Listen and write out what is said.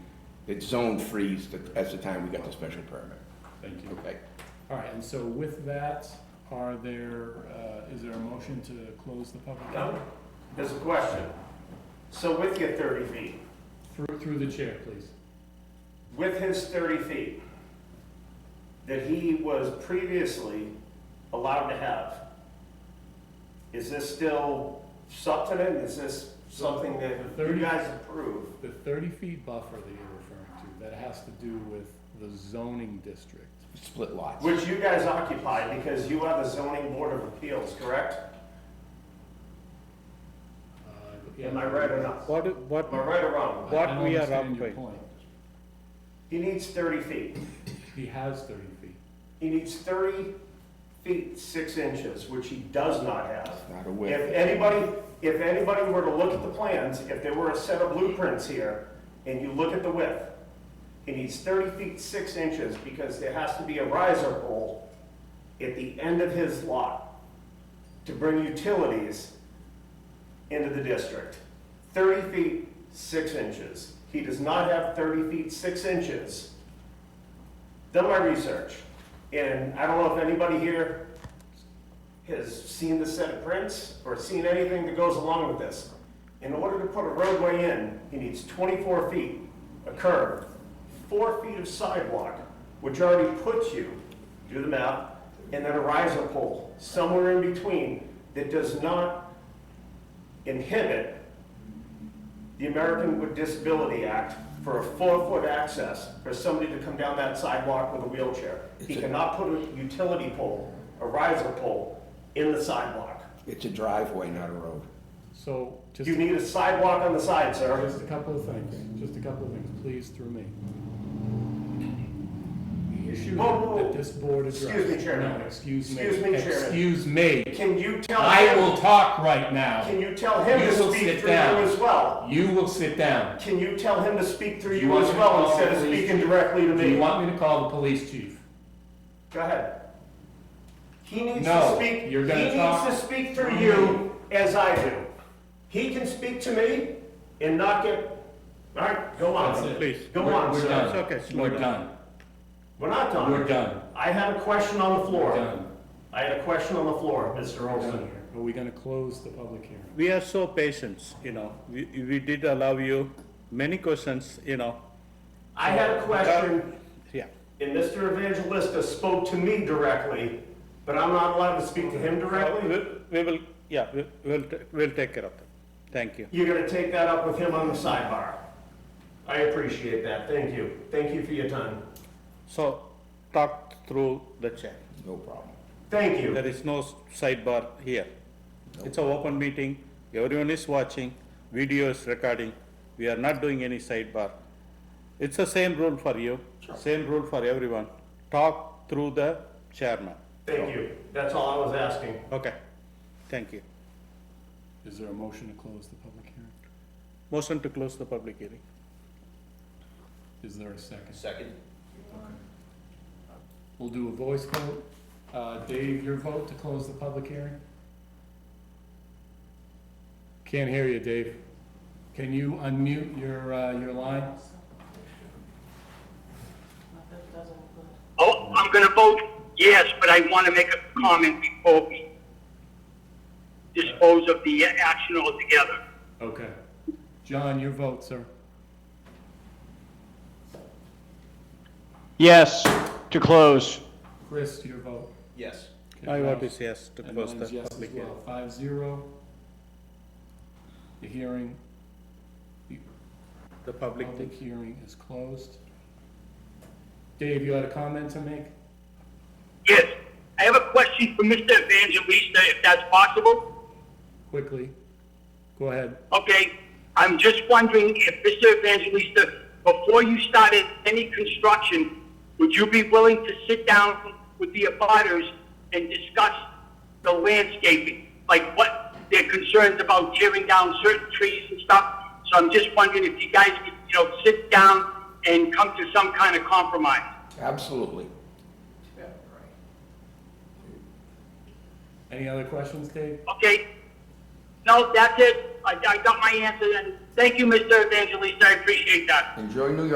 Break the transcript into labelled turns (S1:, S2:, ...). S1: It's zone freeze that- as the time we got the special permit.
S2: Thank you.
S1: Okay.
S2: All right, and so with that, are there, uh, is there a motion to close the public?
S3: No, there's a question. So with your thirty feet,
S2: Through, through the chair, please.
S3: with his thirty feet that he was previously allowed to have, is this still substantive? Is this something that
S2: The
S3: you
S2: 30
S3: guys approve?
S2: The thirty feet buffer that you're referring to, that has to do with the zoning district.
S1: Split lots.
S3: Which you guys occupy because you are the zoning board of appeals, correct?
S2: Uh,
S3: Am I right or not?
S4: What, what,
S3: Am I right or
S2: I-
S3: wrong?
S4: What
S2: I don't
S4: we are
S2: understand
S4: up
S2: your
S4: by.
S2: point.
S3: He needs thirty feet.
S2: He has thirty feet.
S3: He needs thirty feet, six inches, which he does not have.
S1: Not a width.
S3: If anybody, if anybody were to look at the plans, if there were a set of blueprints here, and you look at the width, it needs thirty feet, six inches, because there has to be a riser pole at the end of his lot to bring utilities into the district. Thirty feet, six inches. He does not have thirty feet, six inches. Done my research, and I don't know if anybody here has seen the set of prints or seen anything that goes along with this. In order to put a roadway in, he needs 24 feet, a curb, four feet of sidewalk, which already puts you, do the math, and then a riser pole somewhere in between that does not inhibit the American with Disability Act for a four-foot access for somebody to come down that sidewalk with a wheelchair. He cannot put a utility pole, a riser pole, in the sidewalk.
S1: It's a driveway, not a road.
S2: So just,
S3: You need a sidewalk on the side, sir.
S2: just a couple of things, just a couple of things, please, through me. The issue
S3: Whoa, whoa, whoa.
S2: that this board addressed.
S3: Excuse me, Chairman.
S2: No, excuse me.
S3: Excuse me, Chairman.
S2: Excuse me.
S3: Can you tell
S2: I will
S3: him,
S2: talk right
S3: can
S2: now.
S3: you tell him
S2: You
S3: to
S2: will
S3: speak
S2: sit
S3: through you
S2: down.
S3: as well?
S2: You will sit down.
S3: Can you tell him to speak through
S2: Do you
S3: you
S2: want
S3: as
S2: me to
S3: well
S2: call
S3: instead
S2: the
S3: of
S2: police?
S3: speaking directly to
S2: Do you
S3: me?
S2: want me to call the police chief?
S3: Go ahead. He needs to
S2: No,
S3: speak, he
S2: you're gonna
S3: needs
S2: talk.
S3: to speak through you as I do. He can speak to me and not get, all right, go
S2: That's it.
S3: on.
S4: Please.
S3: Go
S2: We're-
S3: on,
S2: We're
S3: sir.
S2: done.
S4: It's okay, slow
S2: We're
S4: down.
S2: done.
S3: We're not done.
S2: We're done.
S3: I had a question on the
S2: We're
S3: floor.
S2: done.
S3: I had a question on the floor, Mr.
S2: We're
S3: Olson.
S2: done. Are we gonna close the public hearing?
S4: we are so patient, you know, we, we did allow you many questions, you know,
S3: I had a question,
S4: yeah.
S3: and Mr. Evangelista spoke to me directly, but I'm not allowed to speak to him
S4: We,
S3: directly?
S4: Uh, we will, yeah, we, we'll, ta- we'll take care of that, thank you.
S3: You're gonna take that up with him on the sidebar. I appreciate that, thank you. Thank you for your time.
S4: So, talk through the chair,
S1: No problem.
S3: Thank you.
S4: there is no s- sidebar here. It's an open meeting, everyone is watching, video is recording, we are not doing any sidebar. It's the same rule for you, same rule for everyone, talk through the chairman,
S3: Thank you. That's all I was asking.
S4: okay, thank you.
S2: Is there a motion to close the public hearing?
S4: Motion to close the public hearing.
S2: Is there a second?
S5: Second?
S2: We'll do a voice vote. Uh, Dave, your vote to close the public hearing? Can't hear you, Dave. Can you unmute your, uh, your line?
S6: Oh, I'm gonna vote yes, but I want to make a comment before we dispose of the action altogether.
S2: Okay. John, your vote, sir.
S7: Yes, to close.
S2: Chris, your vote.
S5: Yes.
S2: Okay,
S4: I vote
S2: Ralph.
S4: is yes to
S2: And
S4: close the
S2: mine's yes as
S4: public hearing.
S2: well, five zero. The hearing, the
S4: The public
S2: public
S4: thing.
S2: hearing is closed. Dave, you had a comment to make?
S6: Yes, I have a question for Mr. Evangelista, if that's possible.
S2: Quickly. Go ahead.
S6: Okay, I'm just wondering if Mr. Evangelista, before you started any construction, would you be willing to sit down with the abutters and discuss the landscaping? Like what their concerns about tearing down certain trees and stuff? So I'm just wondering if you guys could, you know, sit down and come to some kind of compromise.
S1: Absolutely.
S2: Any other questions, Dave?
S6: Okay? No, that's it. I, I got my answer then. Thank you, Mr. Evangelista. I appreciate that.
S1: Enjoy New York